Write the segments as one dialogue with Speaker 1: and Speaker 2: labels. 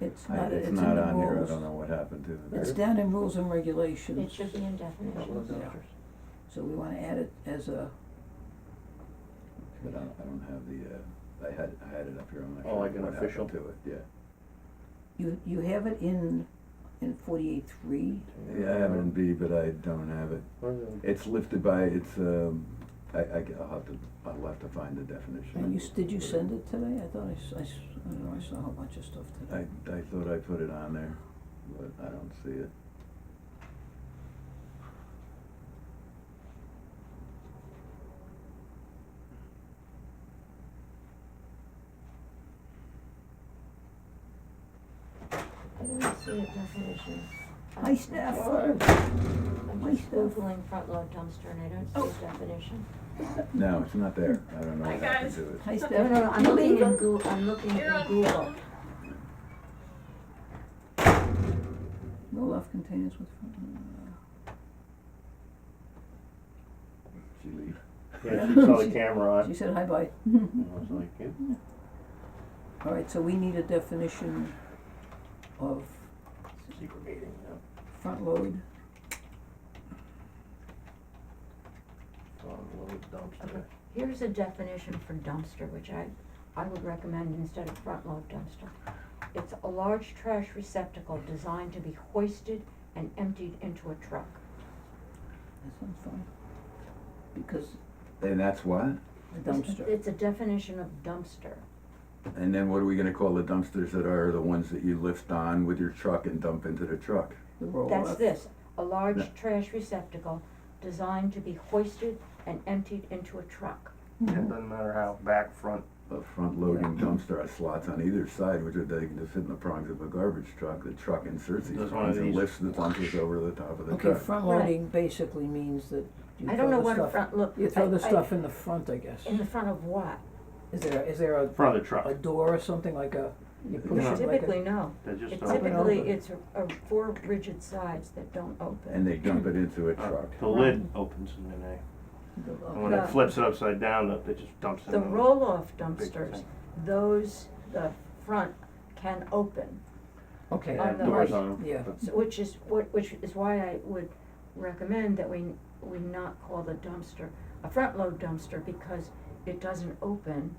Speaker 1: It's
Speaker 2: I-
Speaker 1: not, it's
Speaker 2: It's
Speaker 1: in the rules.
Speaker 2: not on here, I don't know what happened to it.
Speaker 1: It's down in rules and regulations.
Speaker 3: It should be in definitions.
Speaker 1: Yeah. So we wanna add it as a,
Speaker 2: But I don't, I don't have the, uh, I had, I had it up here, I'm not
Speaker 4: Oh,
Speaker 2: sure what
Speaker 4: like an official?
Speaker 2: happened to it, yeah.
Speaker 1: you, you have it in, in forty-eight three,
Speaker 2: Yeah, I have it in B, but I don't have it. It's lifted by, it's, um, I, I, will have to, I'll have to find the definition.
Speaker 1: and you, s- did you send it today? I thought I, s- I s- I don't know, I saw a whole bunch of stuff
Speaker 2: I,
Speaker 1: today.
Speaker 2: I thought I put it on there, but I don't see it.
Speaker 3: I didn't see a definition.
Speaker 1: My staff. my
Speaker 3: I'm just
Speaker 1: staff.
Speaker 3: Googling front load dumpster and I don't see a definition.
Speaker 2: No, it's not there, I don't know
Speaker 5: Hi,
Speaker 2: what happened
Speaker 5: guys.
Speaker 2: to it.
Speaker 1: Hi, Steph.
Speaker 3: No, no, no, I'm looking in
Speaker 1: Leave
Speaker 3: Goo, I'm looking
Speaker 5: You're
Speaker 3: in
Speaker 5: on
Speaker 3: Google.
Speaker 5: film.
Speaker 1: it. No left containers with front, uh,
Speaker 2: She leave.
Speaker 4: Yeah, she saw the camera on,
Speaker 1: She said hi bye.
Speaker 4: and I was like, yeah.
Speaker 1: All right, so we need a definition of
Speaker 4: Segregating,
Speaker 1: front load.
Speaker 4: yeah, um, load dumpster.
Speaker 3: Okay. Here's a definition for dumpster, which I, I would recommend instead of front load dumpster. It's a large trash receptacle designed to be hoisted and emptied into a truck.
Speaker 1: That sounds fine. Because
Speaker 2: And that's what?
Speaker 1: a dumpster,
Speaker 3: It's a definition of dumpster.
Speaker 2: And then what are we gonna call the dumpsters that are the ones that you lift on with your truck and dump into the truck?
Speaker 1: the roll
Speaker 3: Oh, That's
Speaker 1: off.
Speaker 3: this, a
Speaker 2: Yeah.
Speaker 3: large trash receptacle designed to be hoisted and emptied into a truck.
Speaker 4: It doesn't matter how, back, front,
Speaker 2: A front loading dumpster has slots on either side, which are designed to fit in the prongs of a garbage truck. The truck inserts these
Speaker 4: Does one of
Speaker 2: prongs and
Speaker 4: these-
Speaker 2: lifts the dumpsters over the top of the
Speaker 1: Okay,
Speaker 2: truck.
Speaker 1: front
Speaker 3: Right.
Speaker 1: loading basically means that you
Speaker 3: I don't know
Speaker 1: throw the
Speaker 3: what a
Speaker 1: stuff,
Speaker 3: front look.
Speaker 1: you throw the
Speaker 3: I- I-
Speaker 1: stuff in the front, I guess.
Speaker 3: In the front of what?
Speaker 1: Is there, is there a,
Speaker 4: front of the truck,
Speaker 1: a door or something like a, you push it
Speaker 4: No.
Speaker 1: like
Speaker 3: Typically,
Speaker 1: a,
Speaker 3: no.
Speaker 4: they just
Speaker 3: It
Speaker 4: don't.
Speaker 3: Typically,
Speaker 1: open.
Speaker 3: it's a, a four rigid sides that don't open.
Speaker 2: And they dump it into a truck.
Speaker 4: Uh, The lid opens and then they, and when
Speaker 1: the-
Speaker 3: No.
Speaker 4: it flips it upside down, they just dumps it in.
Speaker 3: The roll-off
Speaker 4: big
Speaker 3: dumpsters,
Speaker 4: thing.
Speaker 3: those, the front can open,
Speaker 1: okay,
Speaker 4: They have
Speaker 3: on the
Speaker 4: doors
Speaker 3: right.
Speaker 4: on 'em.
Speaker 1: yeah,
Speaker 3: so- which is, what, which is why I would recommend that we, we not call the dumpster a front-load dumpster, because it doesn't open,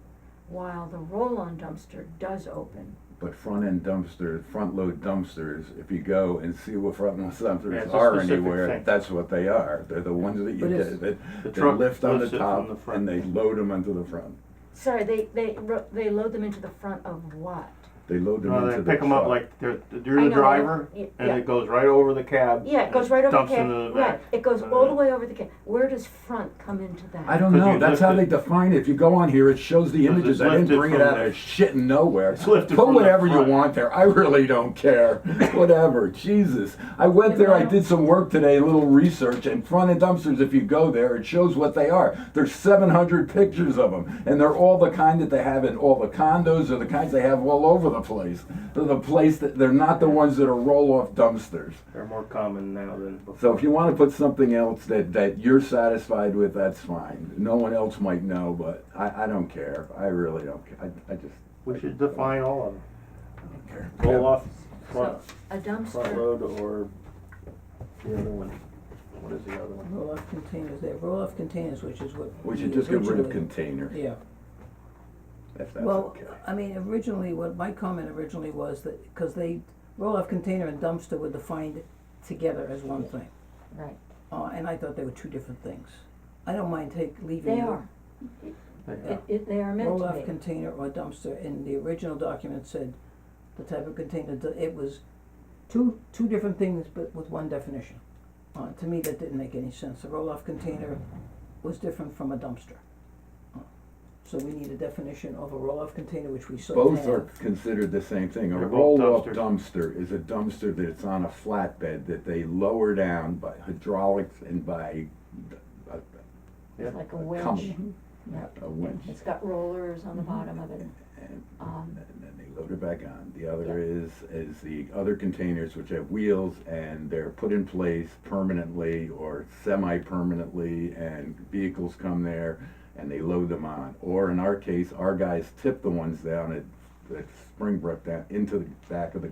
Speaker 3: while the roll-on dumpster does open.
Speaker 2: But front end dumpster, front load dumpsters, if you go and see what front load
Speaker 4: Yeah,
Speaker 2: dumpsters
Speaker 4: it's a
Speaker 2: are
Speaker 4: specific
Speaker 2: anywhere,
Speaker 4: thing.
Speaker 2: that's what they are. They're the ones that you
Speaker 1: But it's-
Speaker 2: did, that
Speaker 4: The
Speaker 2: they
Speaker 4: truck
Speaker 2: lift on the
Speaker 4: lifts it from the
Speaker 2: top
Speaker 4: front.
Speaker 2: and they load them onto the front.
Speaker 3: Sorry, they, they, ro- they load them into the front of what?
Speaker 2: They load them
Speaker 4: No,
Speaker 2: into
Speaker 4: they
Speaker 2: the truck.
Speaker 4: pick them up like, they're,
Speaker 3: I
Speaker 4: you're the
Speaker 3: know,
Speaker 4: driver,
Speaker 3: yeah,
Speaker 4: and
Speaker 3: yeah.
Speaker 4: it goes right over the cab.
Speaker 3: Yeah, it
Speaker 4: and
Speaker 3: goes right over the
Speaker 4: Dumps into the
Speaker 3: cab, right,
Speaker 4: back. Uh,
Speaker 3: it goes
Speaker 4: And
Speaker 3: all the
Speaker 4: then-
Speaker 3: way over the cab, where does front come into that?
Speaker 2: I don't
Speaker 4: 'Cause
Speaker 2: know.
Speaker 4: you
Speaker 2: That's how they
Speaker 4: lifted-
Speaker 2: define it. If you go on here, it shows the
Speaker 4: Because
Speaker 2: images.
Speaker 4: it's
Speaker 2: I didn't
Speaker 4: lifted
Speaker 2: bring it
Speaker 4: from
Speaker 2: out
Speaker 4: the-
Speaker 2: of shit and nowhere.
Speaker 4: It's lifted
Speaker 2: Put
Speaker 4: from the
Speaker 2: whatever you
Speaker 4: front.
Speaker 2: want there. I really don't care. whatever. Jesus. I went there. I did some work today, a little research. And front end dumpsters, if you go there, it shows what they are. There's 700 pictures of them, and they're all the kind that they have in all the condos or the kinds they have all over the place. They're the place that they're not the ones that are roll off dumpsters.
Speaker 4: They're more common now than before.
Speaker 2: So if you want to put something else that, that you're satisfied with, that's fine. No one else might know, but I, I don't care. I really don't care. I, I just
Speaker 4: We should define all of them.
Speaker 2: don't care.
Speaker 4: Roll off,
Speaker 3: So,
Speaker 4: front,
Speaker 3: a
Speaker 4: front
Speaker 3: dumpster,
Speaker 4: load or the other one. What is the other one?
Speaker 1: roll off containers there, roll off containers, which is what
Speaker 2: We should just get rid of
Speaker 1: originally-
Speaker 2: container,
Speaker 1: Yeah,
Speaker 2: if that's
Speaker 1: well,
Speaker 2: okay.
Speaker 1: I mean, originally, what my comment originally was that, cause they, roll off container and dumpster were defined together as one thing.
Speaker 3: right,
Speaker 1: Uh, and I thought they were two different things. I don't mind take, leaving.
Speaker 3: they
Speaker 1: the-
Speaker 3: are,
Speaker 4: They
Speaker 3: it, it, they are meant to be.
Speaker 1: roll-off container or dumpster, and the original document said the type of container, d- it was two, two different things, but with one definition. Uh, to me, that didn't make any sense, a roll-off container was different from a dumpster. Uh, So we need a definition of a roll-off container, which we sort of
Speaker 2: Both are
Speaker 1: have.
Speaker 2: considered the same thing. A
Speaker 4: They're both
Speaker 2: roll-off
Speaker 4: dumpsters.
Speaker 2: dumpster is a dumpster that's on a flatbed that they lower down by hydraulics and by uh,
Speaker 4: Yeah.
Speaker 3: Like a
Speaker 2: A
Speaker 3: winch,
Speaker 2: comb.
Speaker 3: yeah,
Speaker 2: a winch.
Speaker 3: it's got rollers on the bottom of it,
Speaker 2: And
Speaker 3: um,
Speaker 2: and then they load it back on. The other is, is the other containers which have wheels and they're put in place permanently or semi-permanently and vehicles come there and they load them on. Or in our case, our guys tip the ones down at, at Springbrook down into the back of the